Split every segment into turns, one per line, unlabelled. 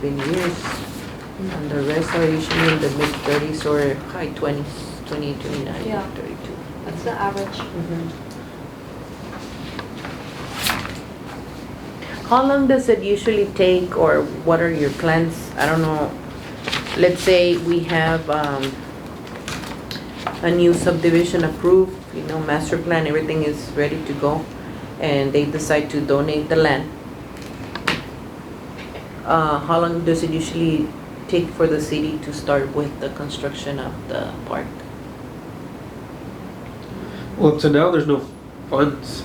been years. And the rest are usually in the mid thirties or high twenties, twenty-eight,
Yeah.
twenty-nine, thirty-two.
That's the average.
Mm-hmm. How long does it usually take or what are your plans? I don't know, let's say we have, um, a new subdivision approved, you know, master plan, everything is ready to go, and they decide to donate the land. Uh, how long does it usually take for the city to start with the construction of the park?
Well, up to now, there's no funds,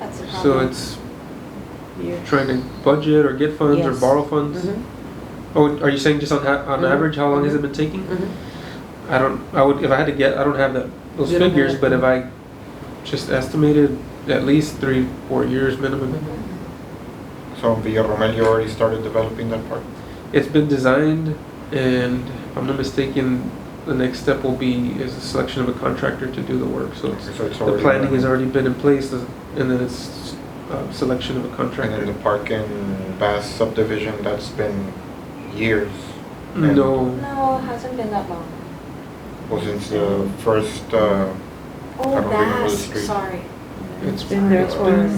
That's the
so
problem.
it's trying to budget or get funds or
Yes.
borrow funds.
Mhm,
Oh, are you saying just on ha- on
Mhm.
average, how long has it been taking?
mhm.
I don't. I would if I had to get. I don't have that those
You don't have
figures,
that.
but if I just estimated at least three, four years minimum.
So in Villa Romel, you already started developing that part?
Mm-hmm.
It's been designed, and if I'm not mistaken, the next step will be is the selection of a contractor to do the work. So it's,
So it's
the
already
planning
done.
has already been in place, and then it's uh, selection of a
And then
contractor.
the park in Bass subdivision, that's been years. and-
No.
No, it hasn't been that long.
Well, since the first, uh,
Oh,
don't remember the
that's,
street.
sorry.
It's
Been there for,
Sorry.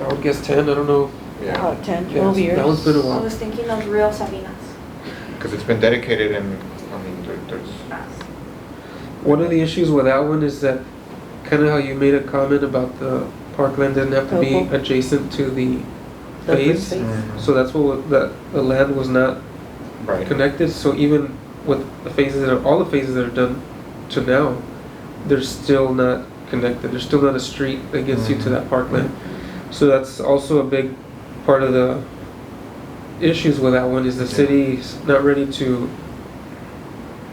I would guess ten. I don't know.
Oh,
yeah,
about 10,
Yeah,
12
it's-
years.
That one's been a
I
while.
was thinking of Real Sabinas.
because it's been dedicated and, I mean, there- there's,
One of the issues with that one is that kind of how you made a comment about the parkland doesn't have to be
Local.
adjacent to the
The first
phase.
phase.
So that's what wa- that the land was not
right.
connected. So even with the phases that are all the phases that are done to now, they're still not connected. There's still not a street that gets you to
Mm-hmm.
that parkland. So that's also a big part of the issues with that one is the
Yeah.
city's not ready to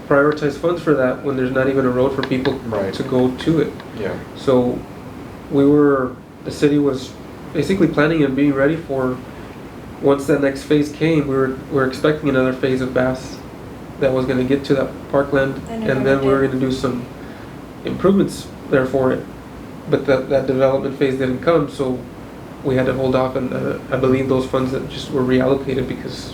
prioritize funds for that when there's not even a road for people
Right.
to go to it.
Yeah,
So we were, the city was basically planning and being ready for, once that next phase came, we were, we were expecting another phase of Bass that was gonna get to that parkland,
And it
and then we were
never
gonna do some improvements there for it. But that, that development phase didn't come, so we had to hold off, and uh, I believe those funds that just were reallocated because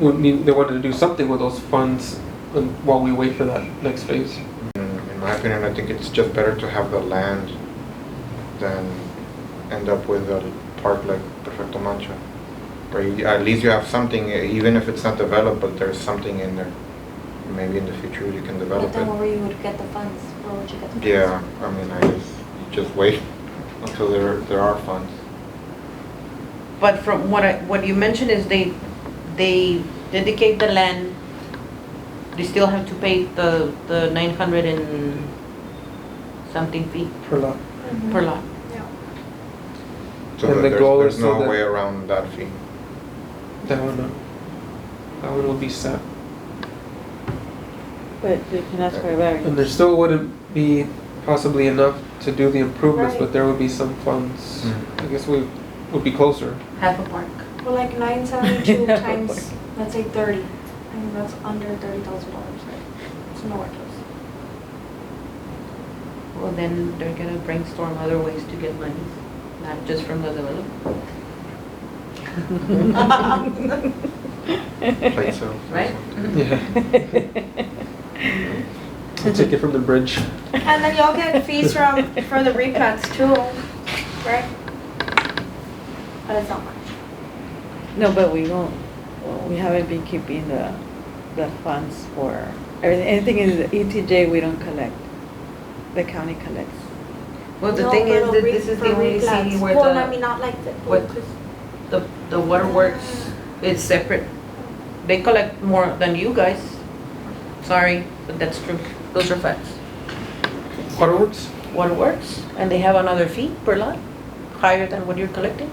we need, they wanted to do something with those funds um, while we wait for that next phase.
Mm, in my opinion, I think it's just better to have the land than end up with a park like Perfecto Mancha. Where you, at least you have something, eh, even if it's not developed, but there's something in there. Maybe in the future you can
But
develop
then
it.
where you would get the funds, where would you get the funds?
Yeah, I mean, I just, just wait until there, there are funds.
But from what I, what you mentioned is they, they dedicate the land, they still have to pay the, the nine hundred and something fee
Per lot.
Mhm.
per lot.
Yeah.
So
And
that
the
there's,
goal
there's
is so
no
that-
way around that fee.
That one, no. That one will be set.
But they can ask for a variance.
And there still wouldn't be possibly enough to do the improvements, but
Right.
there would be some funds.
Mm.
I guess we would be closer.
Half a park.
Well, like nine seventy-two times, let's say thirty, I mean, that's under thirty thousand dollars, right? It's nowhere close.
Well, then they're gonna brainstorm other ways to get money, not just from the developer,
Plate sales or
right?
something.
Yeah. We'll take it from the bridge.
And then y'all get fees from, for the replats too, right? But it's not much.
No, but we won't, we haven't been keeping the, the funds for, everything- anything in the ETJ, we don't collect. The county collects.
Well, the
No,
thing is
for
that
re-
this is
for
the only city
replats.
where
Well, I mean,
the,
not like the.
what- the, the waterworks is separate. They collect more than you guys. Sorry, but that's true. Those are facts.
Waterworks?
waterworks, and they have another fee per lot, higher than what you're collecting.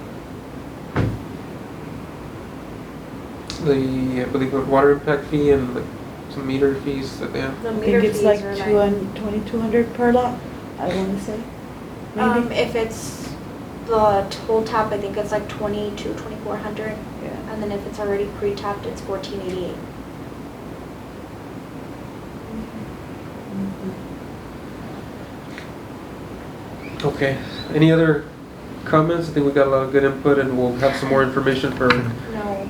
The, I believe, the water impact fee and like some meter fees that they have.
The
I
meter
think
fees
it's like
are
two and, twenty-two hundred per lot, I wanna say.
Um,
Maybe?
if it's the toll tap, I think it's like twenty-two, twenty-four hundred,
Yeah.
and then if it's already pre-tapped, it's fourteen eighty-eight.
Okay. Any other comments? I think we got a lot of good input and we'll have some more information for